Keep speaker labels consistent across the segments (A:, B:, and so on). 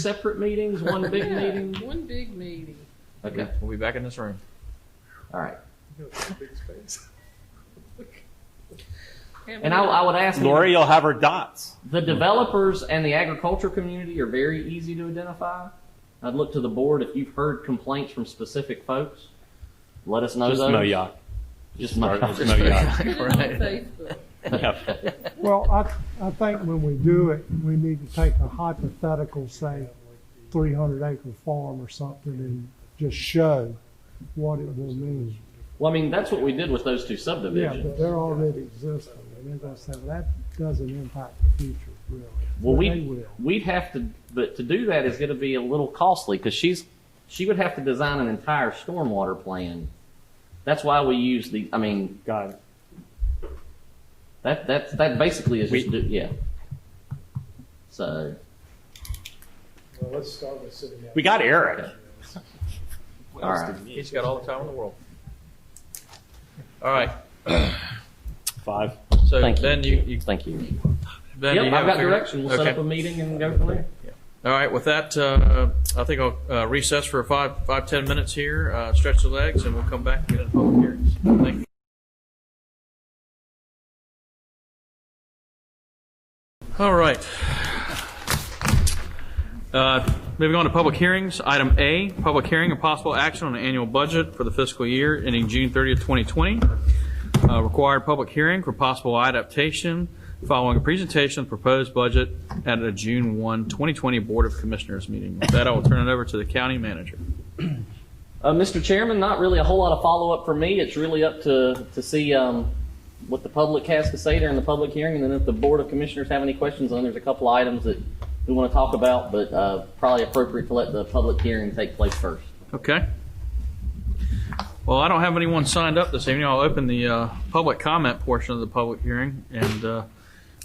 A: separate meetings, one big
B: Yeah,
A: meeting?
B: One big meeting.
A: Okay,
C: We'll be back in this room.
A: all right.
B: Have
A: And I, I would ask,
D: Lori, you'll have her dots.
A: the developers and the agriculture community are very easy to identify. I'd look to the board if you've heard complaints from specific folks. Let us know
D: Just
A: those.
D: Moyoc.
A: Just
D: Or
A: Moyoc.
D: just Moyoc.
B: Put it on
C: Right.
B: Facebook.
D: Yeah.
E: Well, I, I think when we do it, we need to take a hypothetical, say, three hundred acre farm or something and just show what it will mean.
A: Well, I mean, that's what we did with those two
E: Yeah,
A: subdivisions.
E: but they're already existing, and they're gonna say, well, that doesn't impact the future, really.
A: Well,
E: But
A: we-
E: They will.
A: We'd have to, but to do that is going to be a little costly because she's, she would have to design an entire stormwater plan. That's why we use the, I mean,
D: Got it.
A: That that that basically is just
D: We-
A: do- yeah. So
F: Well, let's start with city manager.
D: We got Eric.
A: all right,
C: He's got all the time in the world. All right,
D: Five.
C: so
A: thank
C: then
A: you.
C: you, you,
A: Thank you.
C: then you
A: Yep, I've got
C: have it figured out?
A: direction. We'll set
C: Okay.
A: up a meeting and go from there.
C: All right, with that, uh, I think I'll uh, recess for five, five, 10 minutes here, uh, stretch the legs, and we'll come back and get into public hearings. Thank you. All right. Uh, Moving on to public hearings, item A, public hearing and possible action on the annual budget for the fiscal year ending June 30th, 2020. Uh, Required public hearing for possible adaptation following a presentation of proposed budget at a June 1, 2020 Board of Commissioners meeting. With that, I will turn it over to the county manager.
A: Uh, Mr. Chairman, not really a whole lot of follow up for me. It's really up to to see um, what the public has to say during the public hearing, and then if the board of commissioners have any questions, then there's a couple items that we want to talk about, but uh, probably appropriate to let the public hearing take place first.
C: Okay? Well, I don't have anyone signed up this evening. I'll open the uh, public comment portion of the public hearing, and uh,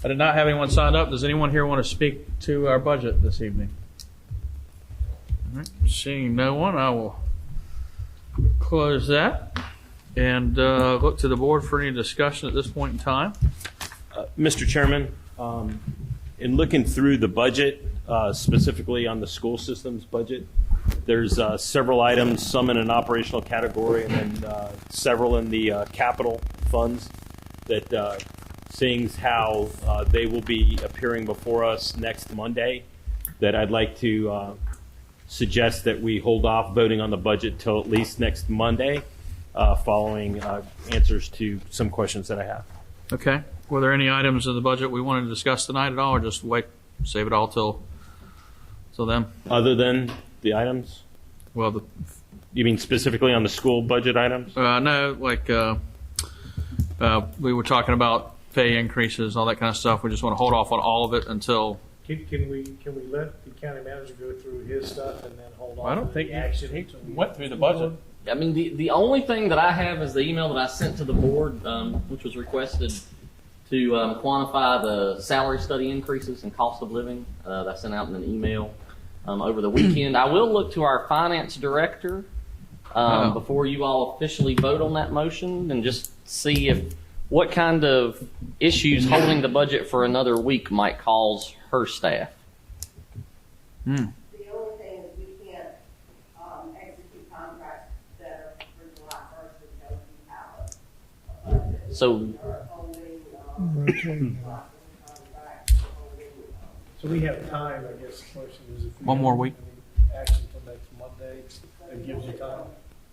C: I did not have anyone signed up. Does anyone here want to speak to our budget this evening? All right, Seeing no one, I will close that and uh, look to the board for any discussion at this point in time.
D: Mr. Chairman, um, in looking through the budget, uh, specifically on the school system's budget, there's uh, several items, some in an operational category, and then uh, several in the uh, capital funds that, uh, seeing as how uh, they will be appearing before us next Monday, that I'd like to uh, suggest that we hold off voting on the budget till at least next Monday, uh, following uh, answers to some questions that I have.
C: Okay. Were there any items in the budget we wanted to discuss tonight at all, or just wait, save it all till, till then?
D: Other than the items?
C: Well, the
D: You mean specifically on the school budget items?
C: Uh, no, like, uh, uh, we were talking about pay increases, all that kind of stuff. We just want to hold off on all of it until.
F: Can, can we, can we let the county manager go through his stuff and then hold on?
C: I don't
F: to
C: think
F: the
C: he-
F: action
C: he
F: until we-
C: went through the budget.
A: I mean, the, the only thing that I have is the email that I sent to the board, um, which was requested to um, quantify the salary study increases and cost of living uh, that I sent out in an email um, over the weekend. I will look to our finance director um,
C: Oh.
A: before you all officially vote on that motion and just see if what kind of issues holding the budget for another week might cause her staff.
G: The only thing is we can't, um, execute contracts that are for July first until we have a budget.
A: So
G: Or only,
E: We're
G: um,
E: okay now.
G: contracts, only, um,
F: So we have time, I guess, the question is if. we
C: One more
F: have
C: week.
F: any Action till next Monday, that gives you time.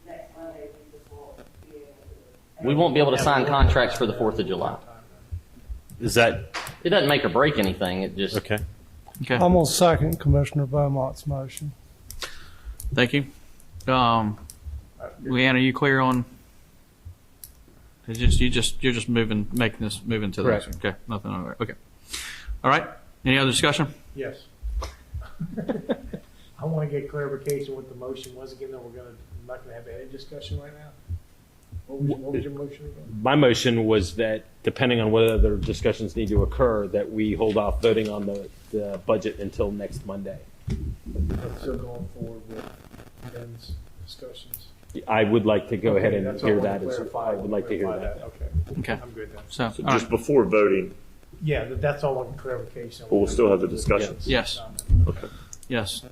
G: next Monday, we just won't be able to.
A: we won't be able to sign contracts for the 4th of July.
D: Is that,
A: It doesn't make or break anything. It just
D: okay.
C: Okay,
E: I'm gonna second Commissioner Beaumont's motion.
C: thank you. Um, Leanne, are you clear on? It's just, you just, you're just moving, making this, moving to the next one. Okay, nothing on there. Okay. All right. Any other discussion?
F: Yes. I want to get clarification what the motion was again, though we're gonna, I'm not gonna have any discussion right now. What was, what was your motion? about?
D: My motion was that depending on whether other discussions need to occur, that we hold off voting on the, the budget until next Monday.
F: So going forward with Ben's discussions.
D: I would like to go ahead
F: Okay,
D: and
F: that's all I
D: hear
F: wanna
D: that. as-
F: clarify.
D: I would like to hear
F: Clarify
D: that.
F: Okay,
C: Okay,
F: I'm good then.
C: so, all
H: So
C: right.
H: just before voting,
F: Yeah, that- that's all on clarification.
H: but we'll still have the discussions.
C: Yes.
F: Um,
C: Yes.